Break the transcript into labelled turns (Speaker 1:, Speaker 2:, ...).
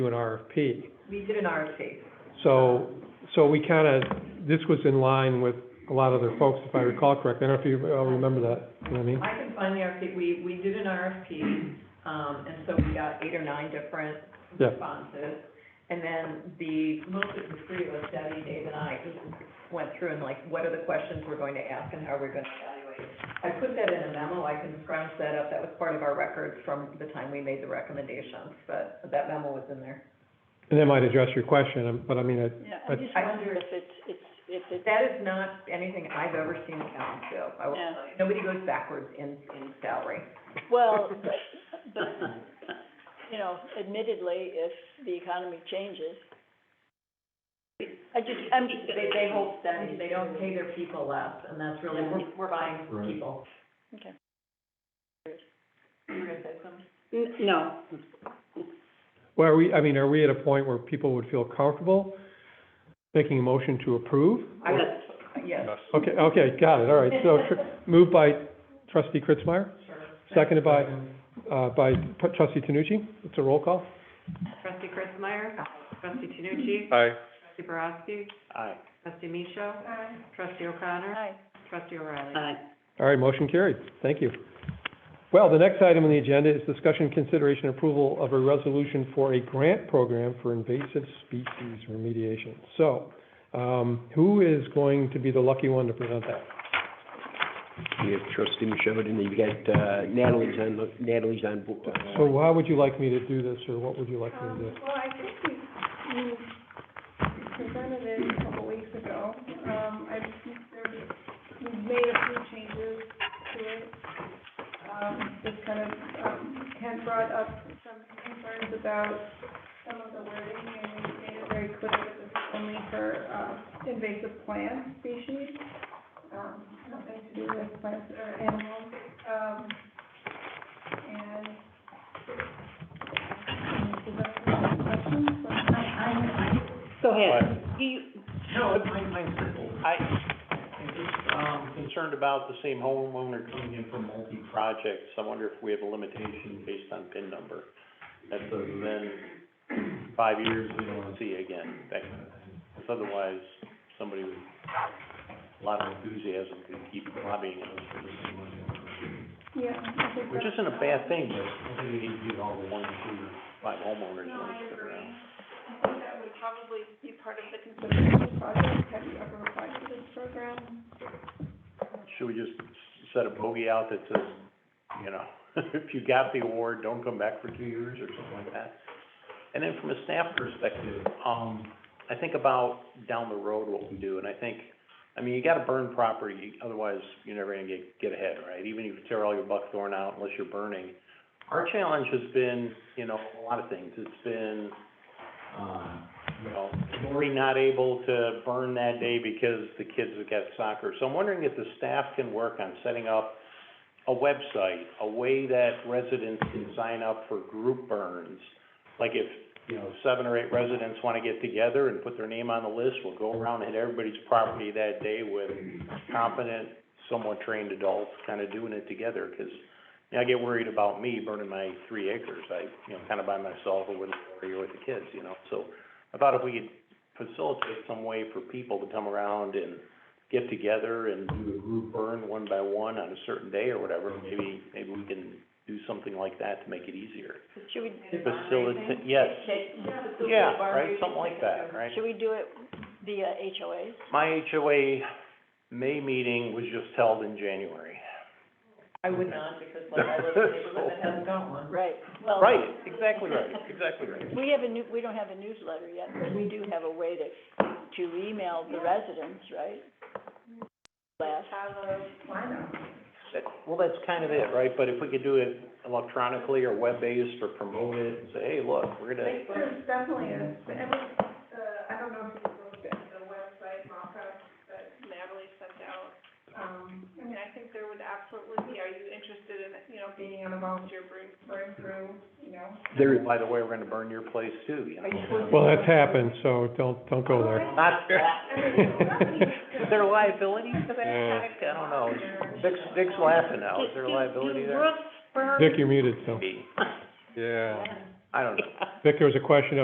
Speaker 1: do an RFP.
Speaker 2: We did an RFP.
Speaker 1: So, so we kind of, this was in line with a lot of other folks, if I recall correctly. I don't know if you all remember that, you know what I mean?
Speaker 2: I can find the RFP, we, we did an RFP, um, and so we got eight or nine different
Speaker 1: Yeah.
Speaker 2: responses. And then the, most of the three of us, Debbie, Dave, and I, just went through and like, what are the questions we're going to ask and how we're gonna evaluate. I put that in a memo, I can scrounge that up, that was part of our records from the time we made the recommendations, but that memo was in there.
Speaker 1: And that might address your question, um, but I mean, it-
Speaker 3: Yeah, I
Speaker 1: But-
Speaker 3: just
Speaker 2: I-
Speaker 3: wonder if it's, it's, if it's,
Speaker 2: That is not anything I've ever seen account do, I will
Speaker 3: Yeah.
Speaker 2: tell you, nobody goes backwards in, in salary.
Speaker 3: well, but, but, you know, admittedly, if the economy changes, I just, I'm just.
Speaker 2: They, they hold steady, they don't pay their people less, and that's really, we're, we're buying
Speaker 4: Right.
Speaker 2: people.
Speaker 3: Okay.
Speaker 2: You were gonna say something?
Speaker 5: N- No,
Speaker 1: well, are we, I mean, are we at a point where people would feel comfortable making a motion to approve?
Speaker 2: I was, yes,
Speaker 1: Okay, okay, got it, all right. So tr- moved by trustee Kritzmeyer,
Speaker 2: sure.
Speaker 1: seconded by, uh, by trustee Tanucci. It's a roll call.
Speaker 5: trustee Chris Meyer, trustee Tanucci,
Speaker 4: Aye.
Speaker 5: trustee Borowski,
Speaker 4: Aye.
Speaker 5: trustee Micho, trustee O'Connor,
Speaker 3: Hi,
Speaker 5: trustee O'Reilly.
Speaker 2: Aye.
Speaker 1: All right, motion carried. Thank you. Well, the next item on the agenda is discussion, consideration, approval of a resolution for a grant program for invasive species remediation. So, um, who is going to be the lucky one to present that?
Speaker 6: We have trustee Michaud, and then you've got uh, Natalie's on, the- Natalie's on board.
Speaker 1: So how would you like me to do this, or what would you like me to do?
Speaker 7: Um, Well, I think we, we presented it a couple weeks ago. Um, I, there, we've made a few changes to it. Um, just kind of, um, Ken brought up some concerns about some of the wording, and we made it very clear that this is only for, uh, invasive plant species. Um, nothing to do with plants or animals. Um, and
Speaker 5: Go ahead.
Speaker 8: No, it might, might simple. I, I'm just, um, concerned about the same homeowner coming in for multi-projects. I wonder if we have a limitation based on PIN number. That's other than five years, we don't wanna see again, that kind of thing. Because otherwise, somebody with a lot of enthusiasm could keep lobbying us for the same money.
Speaker 7: Yeah. I think
Speaker 8: Which
Speaker 7: that's-
Speaker 8: isn't a bad thing, but I think we need to get all the one, two, five homeowners
Speaker 7: No,
Speaker 8: want
Speaker 7: I
Speaker 8: to stick
Speaker 7: agree.
Speaker 8: around.
Speaker 7: I think that would probably be part of the consideration process. Have you ever applied to this program?
Speaker 8: Should we just set a bogey out that says, you know, if you got the award, don't come back for two years or something like that? And then from a staff perspective, um, I think about down the road what we do, and I think, I mean, you gotta burn property, otherwise you're never gonna get, get ahead, right? Even if you tear all your buckthorn out unless you're burning. Our challenge has been, you know, a lot of things. It's been, um, you know, Lori not able to burn that day because the kids have got soccer. So I'm wondering if the staff can work on setting up a website, a way that residents can sign up for group burns. Like if, you know, seven or eight residents wanna get together and put their name on the list, we'll go around and hit everybody's property that day with competent, somewhat trained adults, kinda doing it together, 'cause you know, I get worried about me burning my three acres, I, you know, kinda by myself or with, or with the kids, you know, so I thought if we could facilitate some way for people to come around and get together and do a group burn one by one on a certain day or whatever, maybe, maybe we can do something like that to make it easier.
Speaker 3: should we,
Speaker 8: Facilitate, yes, yeah, right, something like that, right?
Speaker 3: should we do it via HOAs?
Speaker 8: My HOA May meeting was just held in January.
Speaker 2: I would not, because like I live in a neighborhood that hasn't got one.
Speaker 3: Right, well.
Speaker 8: Right, exactly right, exactly right.
Speaker 3: We have a new, we don't have a newsletter yet, but we do have a way to, to email the residents, right? Last,
Speaker 7: Have a lineup.
Speaker 8: That- Well, that's kind of it, right? But if we could do it electronically or web-based or promote it and say, hey, look, we're gonna,
Speaker 7: There's definitely a, but every, uh, I don't know if you looked at the website mock-up that Natalie sent out. Um, I mean, I think there would absolutely be, are you interested in, you know, being on a volunteer bring, bring through, you know?
Speaker 6: There,
Speaker 8: by the way, we're gonna burn your place too, you know?
Speaker 1: Well, that's happened, so don't, don't go there.
Speaker 8: Not,
Speaker 7: I mean,
Speaker 8: is there liability to that, Heck, I don't know. Dick's, Dick's laughing now. Is there liability there?
Speaker 1: Dick, you're muted, so.
Speaker 8: Maybe.
Speaker 4: Yeah.
Speaker 8: I don't know.
Speaker 1: Dick, there was a question